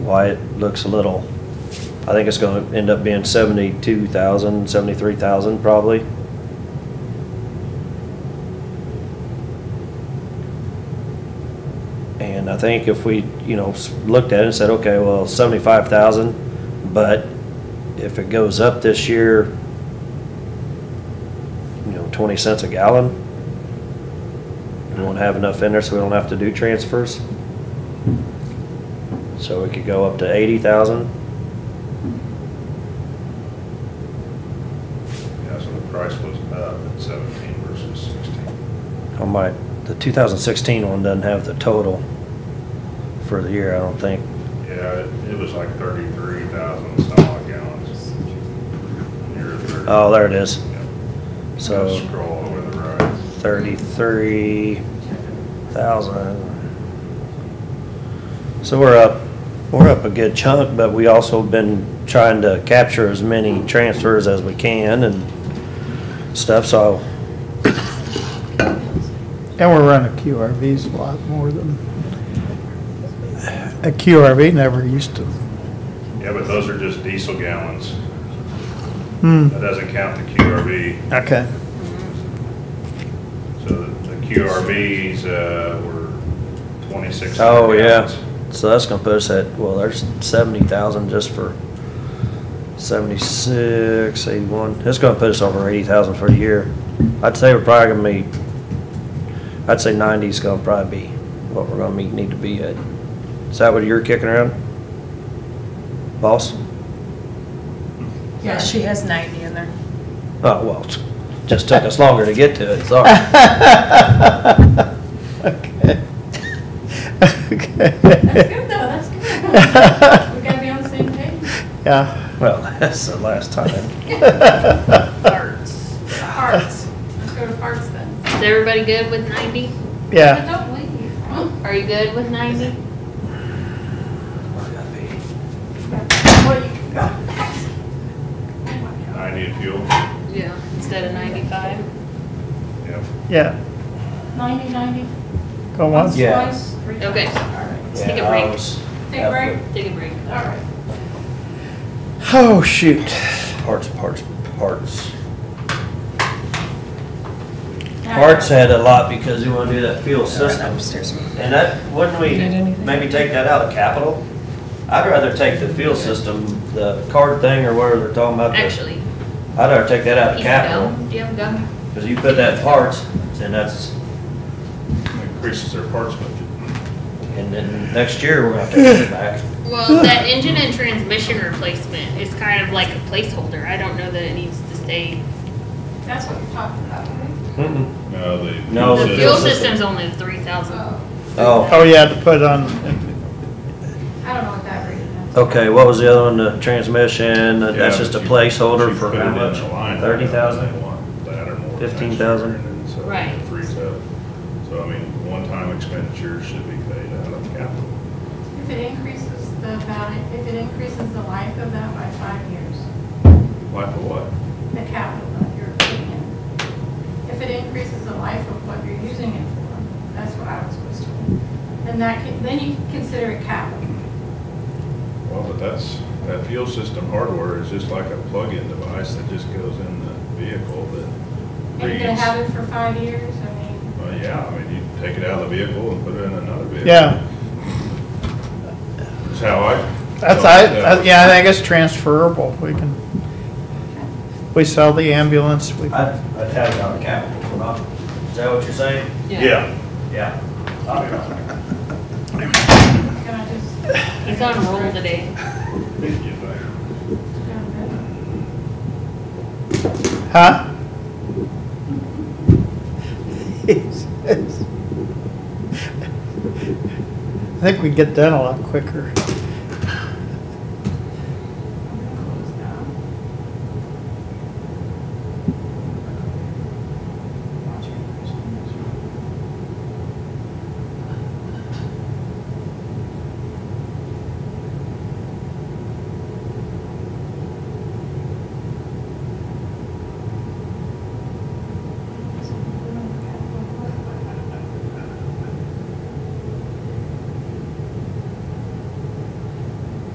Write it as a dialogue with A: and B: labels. A: why it looks a little, I think it's gonna end up being seventy-two thousand, seventy-three thousand probably. And I think if we, you know, s- looked at it and said, okay, well, seventy-five thousand, but if it goes up this year, you know, twenty cents a gallon, we won't have enough in there, so we don't have to do transfers. So it could go up to eighty thousand.
B: Yeah, so the price was up at seventeen versus sixteen.
A: I might, the two thousand sixteen one doesn't have the total for the year, I don't think.
B: Yeah, it- it was like thirty-three thousand solid gallons. Near thirty.
A: Oh, there it is.
B: Yeah.
A: So-
B: Just Scroll over the right.
A: Thirty-three thousand. So we're up, we're up a good chunk, but we also been trying to capture as many transfers as we can and stuff, so
C: And we're running QRVs a lot more than, a QRV never used to.
B: Yeah, but those are just diesel gallons.
C: Hmm,
B: That doesn't count the QRV.
C: okay.
B: So the the QRVs, uh, were twenty-six
A: Oh,
B: hundred
A: yeah.
B: gallons.
A: So that's gonna put us at, well, there's seventy thousand just for seventy-six, eighty-one. That's gonna put us over eighty thousand for the year. I'd say we're probably gonna meet, I'd say ninety's gonna probably be what we're gonna meet, need to be at. Is that what you're kicking around? Boss?
D: Yeah, she has 90 in there.
A: Oh, well, it's- just took us longer to get to it, sorry.
C: Okay.
E: That's
C: Okay.
E: good though, that's good. We gotta be on the same page.
C: Yeah.
A: Well, that's the last time.
E: Parts. Let's go to parts then.
F: Is everybody good with ninety?
C: Yeah.
E: But don't leave.
F: Are you good with ninety?
E: Well, you can go.
B: Ninety fuel,
F: Yeah. Instead of ninety-five?
B: yeah.
C: Yeah.
E: Ninety, ninety.
C: Go once.
A: Yeah.
E: Twice, three times.
F: Okay.
E: All
F: Let's take a break.
E: Take a break.
F: Take a break.
E: right, all right.
C: Oh, shoot.
A: Parts, parts, parts. Parts had a lot because we want to do that fuel system. And that, wouldn't we
D: Did anything?
A: maybe take that out of capital? I'd rather take the fuel system, the card thing or whatever they're talking about. the-
F: Actually, you
A: I'd rather take that out of
F: can
A: capital,
F: go. Do you have a gun?
A: because you put that in parts, and that's,
B: Increases their parts budget.
A: and then next year, we're gonna have to put it back.
F: Well, that engine and transmission replacement is kind of like a placeholder. I don't know that it needs to stay.
E: That's what you're talking about, right?
A: Mm-mm.
B: No, the.
A: No,
F: The
A: the
F: fuel
A: fuel
F: system's only three thousand.
E: Oh,
A: Oh,
C: Oh, yeah, to put on,
E: I don't know what that reading is.
A: okay, what was the other one, the transmission, that's just a
B: Yeah, but you-
A: placeholder
B: you
A: for
B: put it
A: how
B: in
A: much?
B: the line item
A: Thirty thousand?
B: they want That or more.
A: 15,000?
B: next year, and so it
F: Right.
B: Frees up. So I mean, one-time expenditures should be paid out of capital.
E: If it increases the value, if it increases the life of that by five years,
B: Like for what?
E: the capital that you're putting in. If it increases the life of what you're using it for, that's what I was supposed to. And that can, then you can consider it capital.
B: Well, but that's, that fuel system hardware is just like a plug-in device that just goes in the vehicle that
E: And you're gonna
B: reads.
E: have it for five years, I mean,
B: Well, yeah, I mean, you take it out of the vehicle and put it in another vehicle.
C: yeah.
B: That's how I.
C: That's, I, I- yeah, I think it's transferable. We can, we sell the ambulance, we
A: I'd, I'd have it out of capital, for not- is that what you're saying?
B: Yeah.
A: Yeah.
E: it's gonna just.
F: He's on a roll today.
C: Huh? I think we get done a lot quicker.